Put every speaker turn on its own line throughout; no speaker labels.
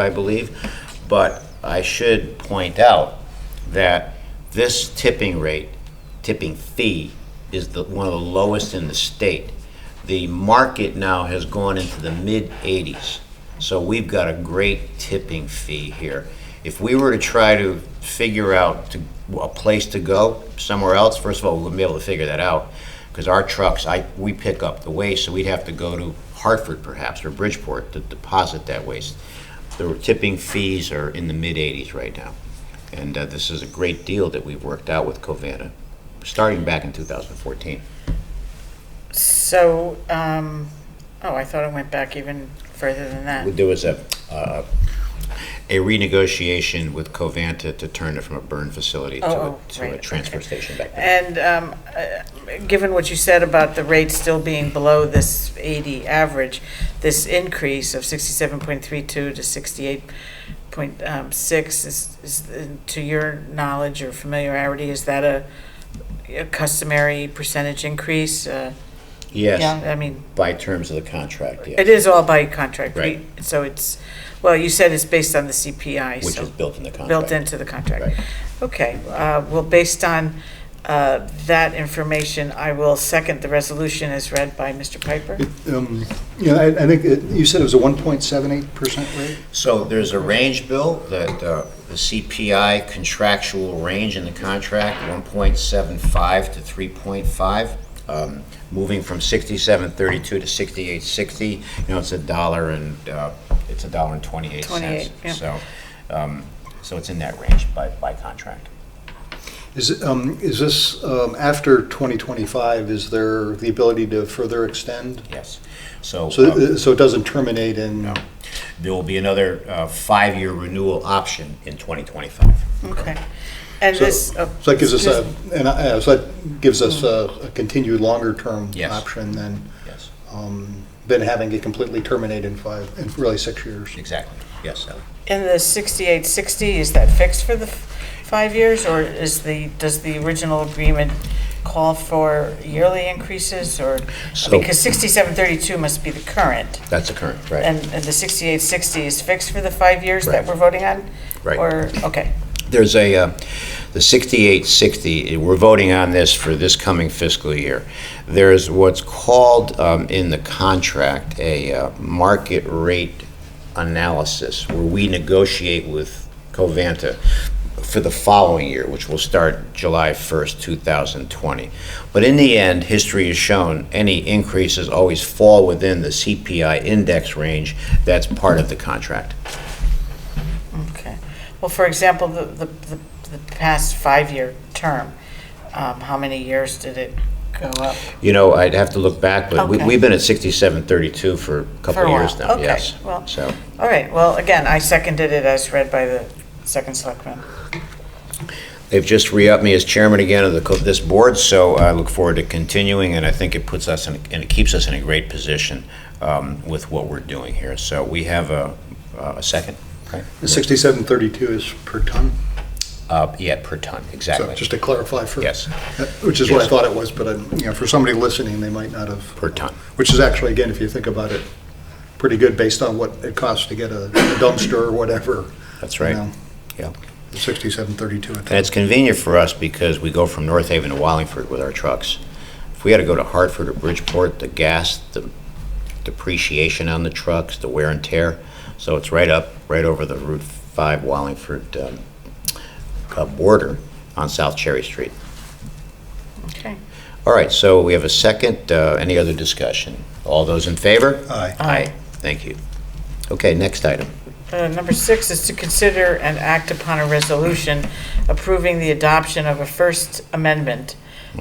I believe. But I should point out that this tipping rate, tipping fee, is the, one of the lowest in the state. The market now has gone into the mid-80s, so we've got a great tipping fee here. If we were to try to figure out to- a place to go somewhere else, first of all, we wouldn't be able to figure that out, because our trucks, I, we pick up the waste, so we'd have to go to Hartford perhaps, or Bridgeport to deposit that waste. The tipping fees are in the mid-80s right now. And uh, this is a great deal that we've worked out with Covanta, starting back in 2014.
So, um, oh, I thought it went back even further than that.
There was a, uh, a renegotiation with Covanta to turn it from a burn facility to a,
Oh, oh,
to a
right,
transfer station back then.
And, um, uh, given what you said about the rate still being below this 80 average, this increase of 67.32 to 68.6 is, is, uh, to your knowledge or familiarity, is that a a customary percentage increase? Uh,
Yes,
Yeah, I mean,
by terms of the contract,
it
yes,
is all by contract.
Right.
We- So it's, well, you said it's based on the CPI, so.
which is built in the contract.
built into the contract.
Right.
Okay, uh, well, based on uh, that information, I will second the resolution as read by Mr. Piper.
Um, Yeah, I I think it- you said it was a 1.78% rate?
So there's a range, Bill, that uh, the CPI contractual range in the contract, 1.75 to 3.5, um, moving from 67.32 to 68.60. You know, it's a dollar and, uh, it's a dollar and 28 cents.
28, yeah.
So, um, so it's in that range by, by contract.
Is it, um, is this um, after 2025, is there the ability to further extend?
Yes. So. um,
So uh, so it doesn't terminate in,
no. There will be another uh, five-year renewal option in 2025.
Okay. And
so
this. oh,
so that gives us a, and I- uh, so that gives us a a continued longer-term
Yes.
option than,
Yes,
um, than having it completely terminate in five, in really six years.
exactly. Yes, Sally.
And the 6860, is that fixed for the f- five years? Or is the, does the original agreement call for yearly increases or?
So-
Because 6732 must be the current.
That's the current, right.
And and the 6860 is fixed for the five years
Right.
that we're voting on?
Right.
Or, okay.
There's a, uh, the 6860, we're voting on this for this coming fiscal year. There's what's called um, in the contract a uh, market rate analysis, where we negotiate with Covanta for the following year, which will start July 1st, 2020. But in the end, history has shown any increases always fall within the CPI index range that's part of the contract.
Okay. Well, for example, the, the, the the past five-year term, um, how many years did it go up?
You know, I'd have to look back, but we,
Okay.
we've been at sixty-seven thirty-two for a couple
For a
of years
while.
now,
Okay,
yes.
well-
So,
All right, well, again, I seconded it as read by the second selectman.
they've just re-upped me as chairman again of the, co- this board, so I look forward to continuing, and I think it puts us in, and it keeps us in a great position, um, with what we're doing here. So we have a, a second, right?
6732 is per ton?
Uh, yeah, per ton,
So
exactly.
just to clarify for.
Yes,
Uh, Which is what I
Yes.
thought it was, but, um, you know, for somebody listening, they might not have.
per ton.
Which is actually, again, if you think about it, pretty good based on what it costs to get a a dumpster or whatever.
That's
you
right.
know,
Yeah.
Sixty-seven thirty-two, I
And
think.
it's convenient for us because we go from North Haven to Wallingford with our trucks. If we had to go to Hartford or Bridgeport, the gas, the depreciation on the trucks, the wear and tear, so it's right up, right over the Route 5 Wallingford um, uh, border on South Cherry Street.
Okay.
All right, so we have a second. Uh, Any other discussion? All those in favor?
Aye.
Aye. Thank you. Okay, next item.
Uh, Number six is to consider and act upon a resolution approving the adoption of a First Amendment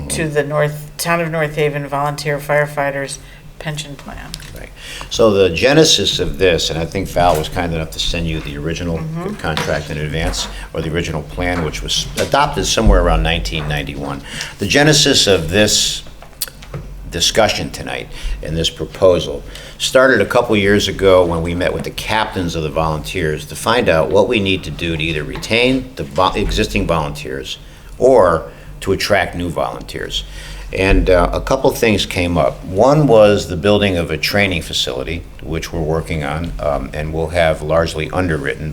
to the North, Town of North Haven Volunteer Firefighters Pension Plan.
Right. So the genesis of this, and I think Val was kind enough to send you the original contract in advance, or the original plan, which was adopted somewhere around 1991. The genesis of this discussion tonight and this proposal started a couple years ago when we met with the captains of the volunteers to find out what we need to do to either retain the vo- existing volunteers or to attract new volunteers. And uh, a couple things came up. One was the building of a training facility, which we're working on um, and will have largely underwritten